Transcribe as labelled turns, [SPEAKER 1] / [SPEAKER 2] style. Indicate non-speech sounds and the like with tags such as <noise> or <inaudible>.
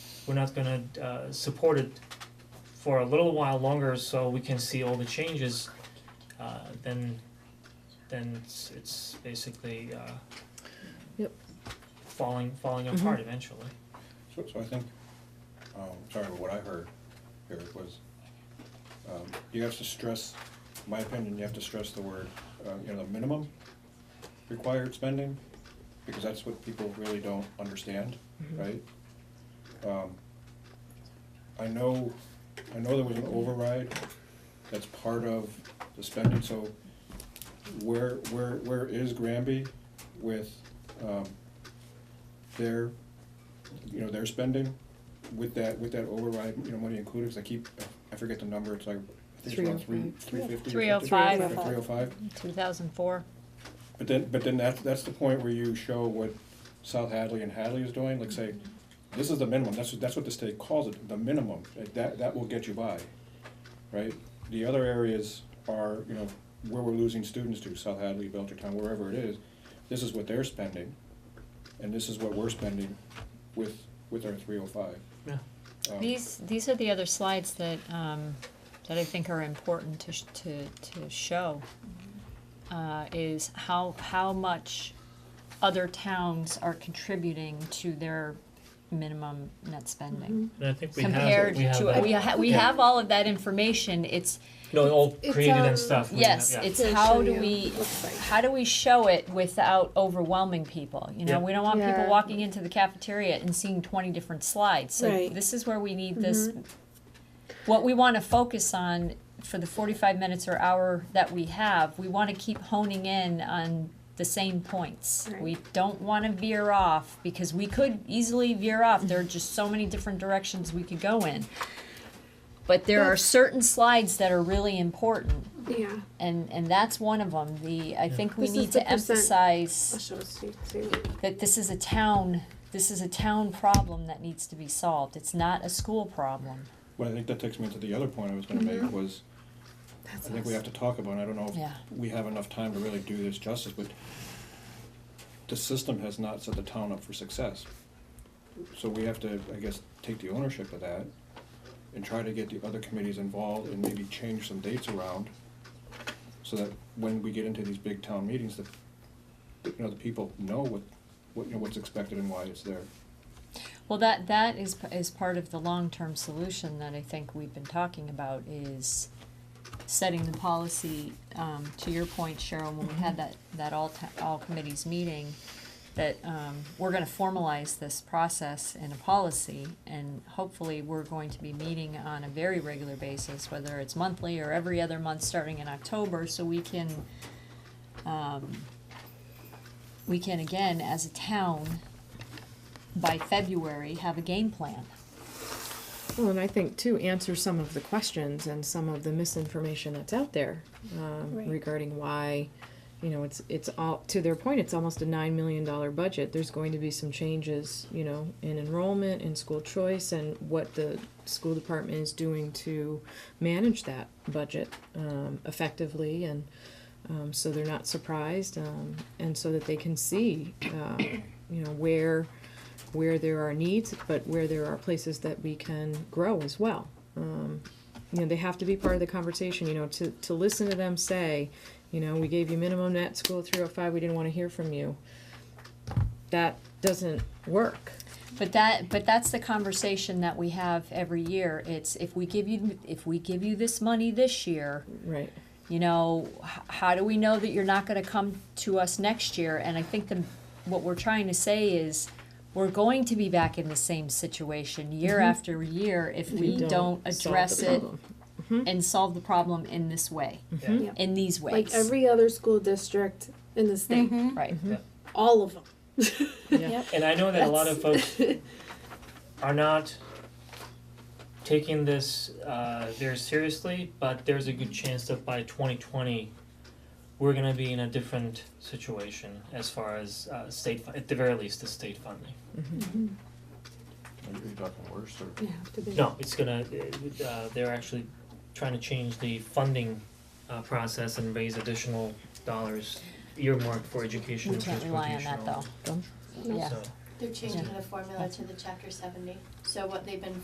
[SPEAKER 1] we're not gonna uh support it for a little while longer so we can see all the changes, uh then then it's it's basically uh
[SPEAKER 2] Yep.
[SPEAKER 1] falling falling apart eventually.
[SPEAKER 3] So, so I think, um, sorry, but what I heard, Eric, was, um, you have to stress, in my opinion, you have to stress the word, uh, you know, the minimum required spending, because that's what people really don't understand, right? Um, I know, I know there was an override, that's part of the spending, so where, where, where is Granby with, um, their you know, their spending with that, with that override, you know, money included, because I keep, I forget the number, it's like, I think it's around three, three fifty.
[SPEAKER 4] 305.
[SPEAKER 3] Three oh five,
[SPEAKER 4] 2004.
[SPEAKER 3] but then, but then that's, that's the point where you show what South Hadley and Hadley is doing, like say, this is the minimum, that's, what- that's what the state calls it, the minimum, Like, that, that will get you by, right? The other areas are, you know, where we're losing students to, South Hadley, Belchertown, wherever it is, this is what they're spending, and this is what we're spending with, with our three oh five.
[SPEAKER 1] Yeah.
[SPEAKER 4] These these are the other slides that um, that I think are important to sh- to to show. Uh, is how how much other towns are contributing to their minimum net spending
[SPEAKER 1] And I think we have
[SPEAKER 4] compared
[SPEAKER 1] we have
[SPEAKER 4] to
[SPEAKER 1] that-
[SPEAKER 4] we, ha- we
[SPEAKER 1] Mm-hmm. yeah.
[SPEAKER 4] have all of that information. It's
[SPEAKER 1] No, all
[SPEAKER 2] It's,
[SPEAKER 1] created
[SPEAKER 2] um,
[SPEAKER 1] and stuff. we have-
[SPEAKER 4] Yes,
[SPEAKER 1] yeah.
[SPEAKER 4] it's
[SPEAKER 2] To show
[SPEAKER 4] how do
[SPEAKER 2] you
[SPEAKER 4] we,
[SPEAKER 2] what it looks like.
[SPEAKER 4] how do we show it without overwhelming people? You
[SPEAKER 1] Yeah.
[SPEAKER 4] know, we don't want people
[SPEAKER 2] Yeah.
[SPEAKER 4] walking into the cafeteria and seeing twenty different slides. So
[SPEAKER 2] Right. Mm-hmm.
[SPEAKER 4] this is where we need this. What we want to focus on for the forty-five minutes or hour that we have, we want to keep honing in on the same points.
[SPEAKER 2] Right.
[SPEAKER 4] We don't want to veer off because we could easily veer off. There are just so many different directions we could go in. But there are
[SPEAKER 2] That's-
[SPEAKER 4] certain slides that are really important
[SPEAKER 2] Yeah,
[SPEAKER 4] and and that's one of them. The I think we
[SPEAKER 2] This is
[SPEAKER 4] need
[SPEAKER 2] the
[SPEAKER 4] to
[SPEAKER 2] percent. I'll
[SPEAKER 4] emphasize
[SPEAKER 2] show it to you too.
[SPEAKER 4] that this is a town. This is a town problem that needs to be solved. It's not a school problem.
[SPEAKER 3] Well, I think that takes me to the other point I was gonna make was, I
[SPEAKER 2] That's
[SPEAKER 3] think we have to talk about, and I don't know
[SPEAKER 4] Yeah.
[SPEAKER 3] if we have enough time to really do this justice, but the system has not set the town up for success. So we have to, I guess, take the ownership of that and try to get the other committees involved and maybe change some dates around so that when we get into these big town meetings, that, that, you know, the people know what, what, you know, what's expected and why it's there.
[SPEAKER 4] Well, that that is p- is part of the long term solution that I think we've been talking about is setting the policy. Um, to your point, Cheryl, when we had that that all ta- all committees meeting, that um, we're going to formalize this process in a policy, and hopefully we're going to be meeting on a very regular basis, whether it's monthly or every other month, starting in October, so we can. Um, we can again, as a town, by February have a game plan.
[SPEAKER 5] Well, and I think too, answer some of the questions and some of the misinformation that's out there um,
[SPEAKER 2] Right.
[SPEAKER 5] regarding why, you know, it's it's all to their point. It's almost a nine million dollar budget. There's going to be some changes, you know, in enrollment, in school choice, and what the school department is doing to manage that budget um, effectively, and um, so they're not surprised, um, and so that they can see, uh, you know, where where there are needs, but where there are places that we can grow as well. Um, you know, they have to be part of the conversation, you know, to, to listen to them say, you know, we gave you minimum net school three oh five, we didn't wanna hear from you. That doesn't work.
[SPEAKER 4] But that, but that's the conversation that we have every year. It's if we give you, if we give you this money this year,
[SPEAKER 5] Right.
[SPEAKER 4] you know, h- how do we know that you're not gonna come to us next year? And I think the, what we're trying to say is, we're going to be back in the same situation year after year if we don't
[SPEAKER 5] solve the
[SPEAKER 4] address it
[SPEAKER 5] problem.
[SPEAKER 4] and solve the problem in this way,
[SPEAKER 1] Yeah.
[SPEAKER 2] Yeah.
[SPEAKER 4] in these
[SPEAKER 2] Like
[SPEAKER 4] ways,
[SPEAKER 2] every other school district in the state,
[SPEAKER 4] right?
[SPEAKER 2] all of them. <laughs>
[SPEAKER 1] And I know that a lot of folks
[SPEAKER 4] <laughs>
[SPEAKER 1] are not taking this uh, very seriously, but there's a good chance that by 2020, we're going to be in a different situation as far as uh, state, fu- at the very least, the state funding.
[SPEAKER 3] Are you talking worse or?
[SPEAKER 2] You have to be.
[SPEAKER 1] No, it's gonna, uh, they're actually trying to change the funding uh, process and raise additional dollars earmarked for education
[SPEAKER 4] We
[SPEAKER 1] and
[SPEAKER 4] can't
[SPEAKER 1] transportation.
[SPEAKER 4] rely on that though.
[SPEAKER 5] Dumb.
[SPEAKER 4] Yeah.
[SPEAKER 1] So,
[SPEAKER 6] They're changing the formula to the chapter seventy, so what they've been